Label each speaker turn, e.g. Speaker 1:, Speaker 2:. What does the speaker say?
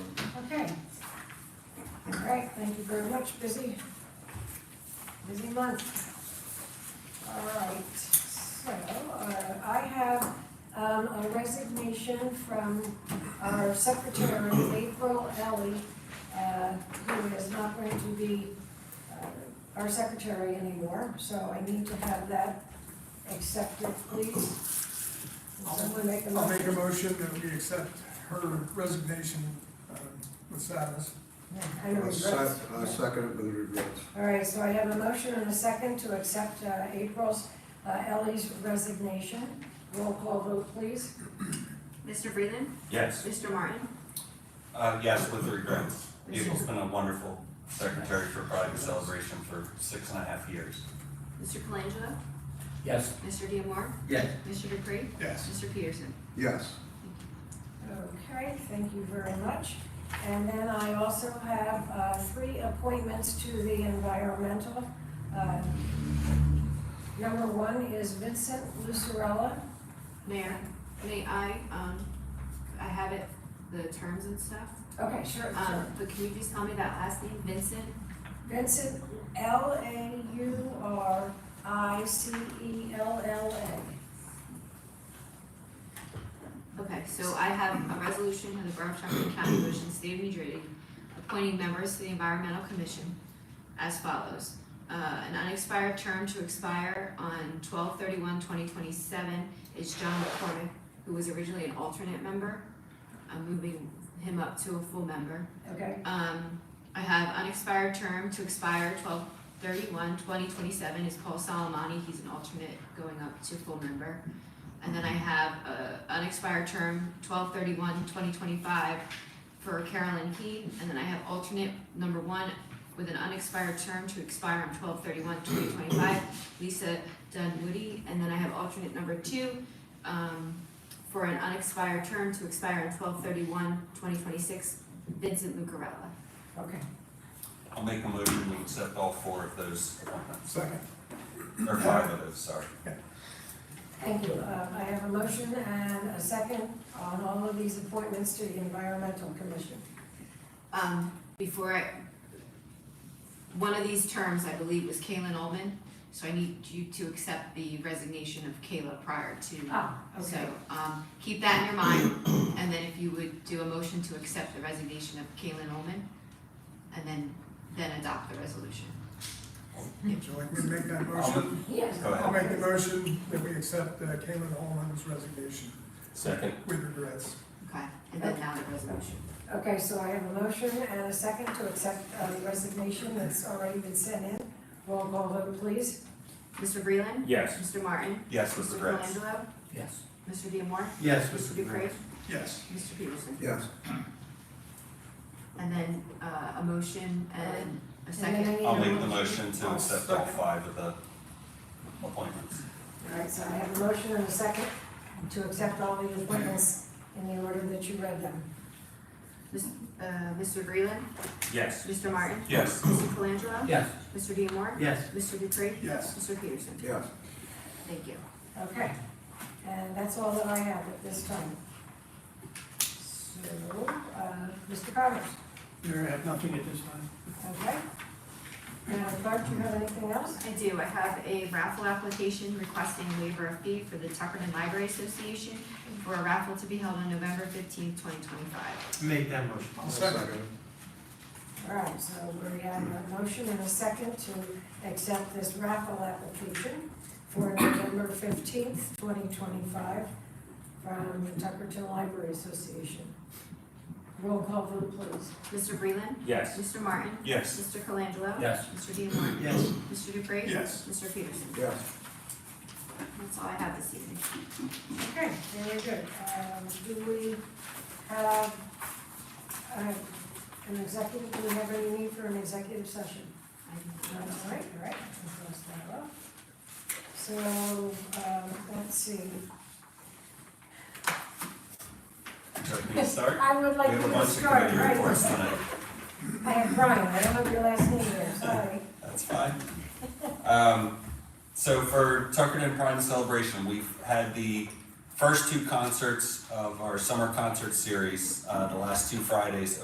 Speaker 1: Thank you very much, busy, busy month. All right, so uh, I have um, a resignation from our secretary, April Ellie, uh, who is not going to be uh, our secretary anymore, so I need to have that accepted, please. Will Someone make a
Speaker 2: I'll
Speaker 1: motion.
Speaker 2: make a motion that we accept her resignation um, with sadness.
Speaker 1: I know
Speaker 3: I
Speaker 1: it's
Speaker 3: sec-
Speaker 1: rough.
Speaker 3: I second it with regrets.
Speaker 1: All right, so I have a motion and a second to accept uh, April's, uh, Ellie's resignation. Roll call vote, please.
Speaker 4: Mr. Breland.
Speaker 5: Yes,
Speaker 4: Mr. Martin.
Speaker 5: uh, yes, with regrets.
Speaker 4: Yes.
Speaker 5: April's been a wonderful secretary for Pride and Celebration for six and a half years.
Speaker 4: Mr. Colangelo.
Speaker 6: Yes.
Speaker 4: Mr. Diemar.
Speaker 6: Yes.
Speaker 4: Mr. Dupree.
Speaker 2: Yes.
Speaker 4: Mr. Peterson.
Speaker 3: Yes,
Speaker 1: Okay, thank you very much. And then I also have uh, three appointments to the environmental. uh, Number one is Vincent Lucarella.
Speaker 4: Mayor, may I, um, I have it, the terms and stuff.
Speaker 1: Okay, sure,
Speaker 4: Um,
Speaker 1: sure.
Speaker 4: but can you just tell me that last name, Vincent?
Speaker 1: Vincent, E L-A-U-R-I-C-E-L-L-A.
Speaker 4: Okay, so I have a resolution of the Borough of Chappaqua County, of Ocean State of New Jersey, appointing members to the Environmental Commission as follows. Uh, an unexpired term to expire on 2027 is John McCormick, who was originally an alternate member. I'm moving him up to a full member.
Speaker 1: Okay,
Speaker 4: Um, I have unexpired term to expire 2027 is Paul Salamani, he's an alternate going up to full member. And then I have a unexpired term 2025 for Carolyn Keene, and then I have alternate number one with an unexpired term to expire on 2025, Lisa Dunwoody, and then I have alternate number two, um, for an unexpired term to expire on 2026. Vincent Lucarella.
Speaker 1: okay.
Speaker 5: I'll make a motion, we accept all four of those appointments,
Speaker 2: Second.
Speaker 5: or five of those, sorry.
Speaker 1: Thank you. Uh, I have a motion and a second on all of these appointments to the Environmental Commission.
Speaker 4: Um, before I, one of these terms, I believe, was Kaylin Ullman, so I need you to accept the resignation of Kayla prior to.
Speaker 1: Ah,
Speaker 4: So, um, keep that in your mind, and then if you would do a motion to accept the resignation of Kaylin Ullman, and then, then adopt the resolution.
Speaker 2: Would you like me to make that
Speaker 5: I'll
Speaker 2: motion?
Speaker 5: move-
Speaker 1: Yes.
Speaker 5: Go ahead.
Speaker 2: I'll make the motion that we accept uh, Caitlin Holman's resignation
Speaker 6: Second.
Speaker 2: with regrets.
Speaker 4: Okay, and then now the resolution.
Speaker 1: Okay, so I have a motion and a second to accept uh, the resignation that's already been sent in. Roll call vote, please.
Speaker 4: Mr. Breland.
Speaker 6: Yes.
Speaker 4: Mr. Martin.
Speaker 5: Yes, with
Speaker 4: Mr.
Speaker 5: regrets.
Speaker 4: Colangelo.
Speaker 6: Yes.
Speaker 4: Mr. Diemar.
Speaker 6: Yes.
Speaker 4: Mr. Dupree.
Speaker 2: Yes.
Speaker 4: Mr. Peterson.
Speaker 3: yes.
Speaker 4: And then, uh, a motion and a second.
Speaker 1: And then I need
Speaker 5: I'll
Speaker 1: a
Speaker 5: make the motion to
Speaker 2: I'll
Speaker 5: accept all
Speaker 2: second.
Speaker 5: five of the appointments.
Speaker 1: All right, so I have a motion and a second to accept all the appointments in the order that you read them.
Speaker 4: Uh, Mr. Breland.
Speaker 6: Yes.
Speaker 4: Mr. Martin.
Speaker 5: Yes.
Speaker 4: Mr. Colangelo.
Speaker 6: Yes.
Speaker 4: Mr. Diemar.
Speaker 6: Yes.
Speaker 4: Mr. Dupree.
Speaker 2: Yes.
Speaker 4: Mr. Peterson.
Speaker 3: Yes,
Speaker 4: Thank you.
Speaker 1: Okay, and that's all that I have at this time. So, uh, Mr. Powers?
Speaker 2: Mayor, I have nothing at this time.
Speaker 1: Okay. Now, Clark, do you have anything else?
Speaker 4: I do, I have a raffle application requesting waiver of fee for the Tuckerton Library Association for a raffle to be held on November fifteenth, twenty twenty-five.
Speaker 6: Make that motion.
Speaker 2: I'll second.
Speaker 1: All right, so we have a motion and a second to accept this raffle application for November fifteenth, twenty twenty-five from the Tuckerton Library Association. Roll call vote, please.
Speaker 4: Mr. Breland.
Speaker 6: Yes.
Speaker 4: Mr. Martin.
Speaker 5: Yes.
Speaker 4: Mr. Colangelo.
Speaker 6: Yes.
Speaker 4: Mr. Diemar.
Speaker 6: Yes.
Speaker 4: Mr. Dupree.
Speaker 2: Yes.
Speaker 4: Mr. Peterson.
Speaker 3: yes.
Speaker 4: That's all I have this evening.
Speaker 1: Okay, very good. Um, do we have, uh, an executive, do we have any need for an executive session?
Speaker 4: I-
Speaker 1: All right, all right, we'll close that up. So, um, let's see.
Speaker 5: Can we start?
Speaker 1: I would
Speaker 5: We
Speaker 1: like
Speaker 5: have a
Speaker 1: you to
Speaker 5: bunch of
Speaker 1: start
Speaker 5: committee
Speaker 1: right
Speaker 5: reports
Speaker 1: away.
Speaker 5: tonight.
Speaker 1: I have Brian, I don't have your last name there, sorry.
Speaker 5: That's fine. Um, so for Tuckerton Pride and Celebration, we've had the first two concerts of our summer concert series, uh, the last two Fridays